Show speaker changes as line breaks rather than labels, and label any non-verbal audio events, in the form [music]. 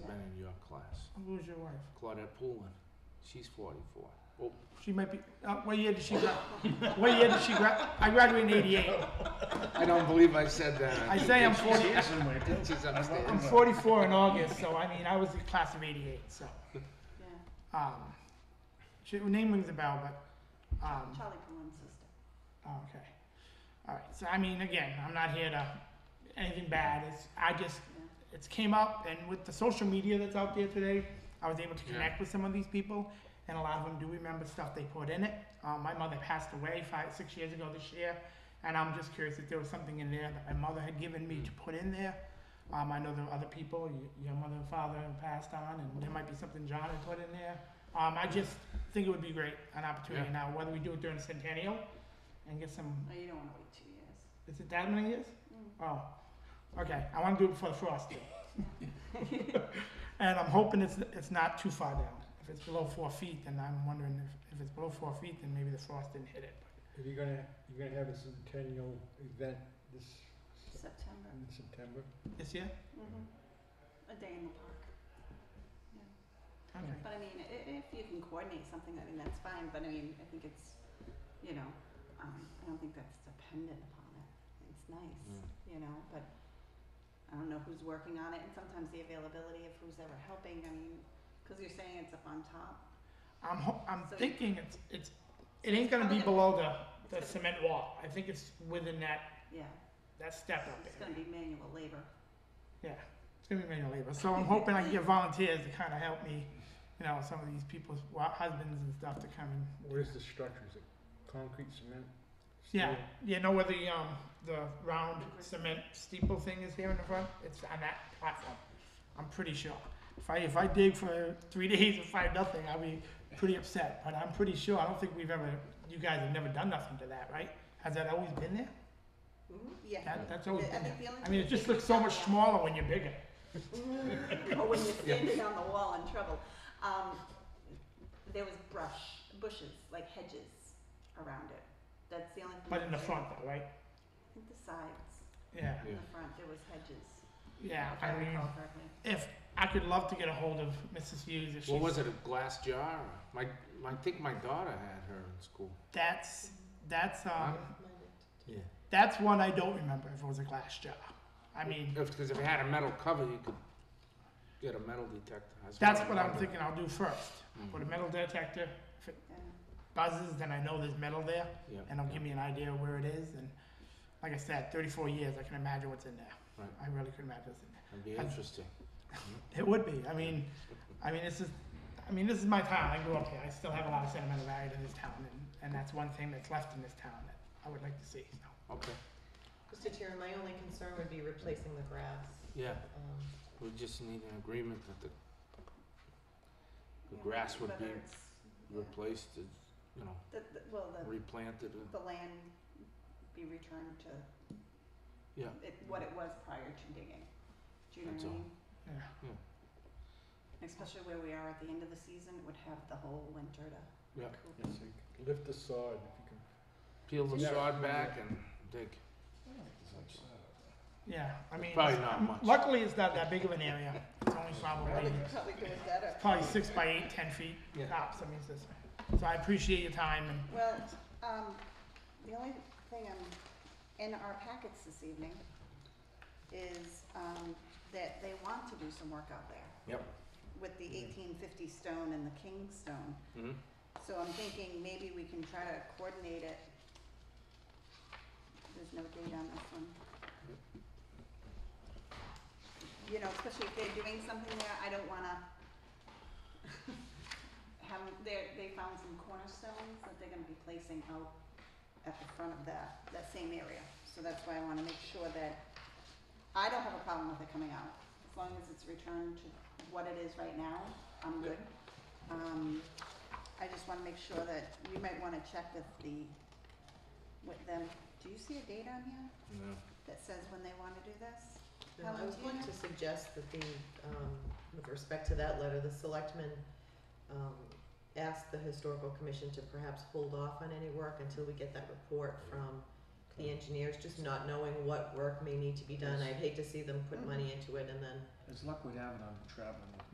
class.
Who's your wife?
Claudette Poulin, she's 44. Oh,
She might be. Uh, what year did she grad? [laughs] what year did she grad? I graduated in '88.
I don't believe I said that.
I say I'm 40.
She's upstairs.
I'm 44 in August, so I mean, I was a class of '88. So,
Yeah,
um, she, her name rings a bell, but um,
Charlie Pullen's sister.
Oh, Okay. All right. So I mean, again, I'm not here to anything bad. It's I just it's came up, and with the social media that's out there today, I was able to
Yeah.
connect with some of these people, and a lot of them do remember stuff they put in it. Um, my mother passed away five, six years ago this year, and I'm just curious if there was something in there that my mother had given me
Mm.
to put in there. Um, I know there are other people, y- your mother and father have passed on, and there might be something John had put in there. Um, I just think it would be great, an opportunity
Yeah.
now, whether we do it during Centennial and get some
No, Oh, you don't wanna wait two years.
is it that many years?
Mm.
Oh, okay. I want to do it before the frost. too. [laughs] and I'm hoping it's it's not too far down. If it's below four feet, then I'm wondering if, if it's below four feet, then maybe the frost didn't hit it.
If you're gonna, you're gonna have a centennial event this, s-
September.
in September,
This year?
Mhm. A day in the park.
Okay.
But I mean, i- if you can coordinate something, I mean, that's fine, but I mean, I think it's, you know, um, I don't think that's dependent upon it. It's
Mm.
nice, you know, but I don't know who's working on it and sometimes the availability of who's ever helping, I mean, cause you're saying it's up on top.
I'm ho- I'm
So-
thinking it's it's it
So
ain't gonna be
it's
below the, the
it's gonna-
cement wall. I think it's within that
Yeah,
that step up
it's
there.
gonna be manual labor.
Yeah, it's gonna be manual labor. So I'm hoping I can get volunteers to kind of help me, you know, some of these people's wa- husbands and stuff to come and
what is the structure, is it concrete, cement?
Yeah,
steel?
you know where the um the round cement steeple thing is here in the front? It's on that platform. I'm pretty sure. If I if I dig for three [laughs] days and find nothing, I'll be pretty upset. But I'm pretty sure. I don't think we've ever. You guys have never done nothing to that, right? Has that always been there?
Yeah.
That, that's always
I
been there.
think the only
I mean,
thing
it just
is
looks so much smaller when you're bigger.
Mm. or
[laughs]
when you're standing on the wall in trouble. Um, there was brush, bushes, like hedges around it. That's the only thing.
But in the
that-
front, though, right?
I think the sides,
Yeah,
in the front, there was hedges.
yeah.
if
I mean,
recall correctly.
if I could love to get a hold of Mrs. Hughes if she's.
What was it, a glass jar? My, my- I think my daughter had her in school.
That's that's um.
Huh? Yeah.
That's one I don't remember if it was a glass jar. I mean,
Because if it had a metal cover, you could get a metal detector.
that's what I'm
remember.
thinking I'll do first.
Mm.
Put a metal detector, if it buzzes, then I know there's metal there,
Yeah.
and it'll give me an idea of where it is. And like I said, 34 years, I can imagine what's in there.
Right.
I really could imagine what's in there.
It'd be interesting. [laughs]
It would be. I mean, I mean, this is, I mean, this is my town. I grew up here. I still have a lot of sentimental value to this town, and, and that's one thing that's left in this town that I would like to see. So.
Okay,
Mr. Chair, my only concern would be replacing the grass.
yeah,
Um,
we just need an agreement that the, the
Yeah,
grass would
whether
be
it's- yeah,
replaced, uh, you know,
The, the, well, the,
replanted. uh,
the land be returned to
Yeah,
it, what it was prior to digging. Do you know
That's
what
all.
I mean?
Yeah.
Especially where we are at the end of the season, it would have the whole winter to
Yeah.
recoup.
Yes, you could lift the sod if you can.
peel the
Yeah.
sod back and dig.
Yeah, I mean,
Probably
it's-
not
um,
much.
Luckily, it's not that big of an area. It's only probably
probably could have better.
probably six by eight, ten feet
Yeah.
tops. I mean, it's this. So I appreciate your time and
Well, um, the only thing i in our packets this evening is, um, that they want to do some work out there.
Yep.
With the eighteen fifty stone and the king stone,
Mhm.
so I'm thinking maybe we can try to coordinate it. There's no date on this one. You know, especially if they're doing something there, I don't wanna [laughs] have, they, they found some cornerstones that they're gonna be placing out at the front of that, that same area. So that's why I wanna make sure that, I don't have a problem with it coming out, as long as it's returned to what it is right now, I'm good. Um, I just wanna make sure that, you might wanna check with the, with them, do you see a date on here
No.
that says when they wanna do this?
no, I was going to suggest that the, um, with respect to that letter, the selectmen, um, asked the historical commission to perhaps hold off on any work until we get that report from the engineers, just not knowing what work may need to be done. I'd hate to see them put money into it and then
As luck would have it, uh, I'm traveling with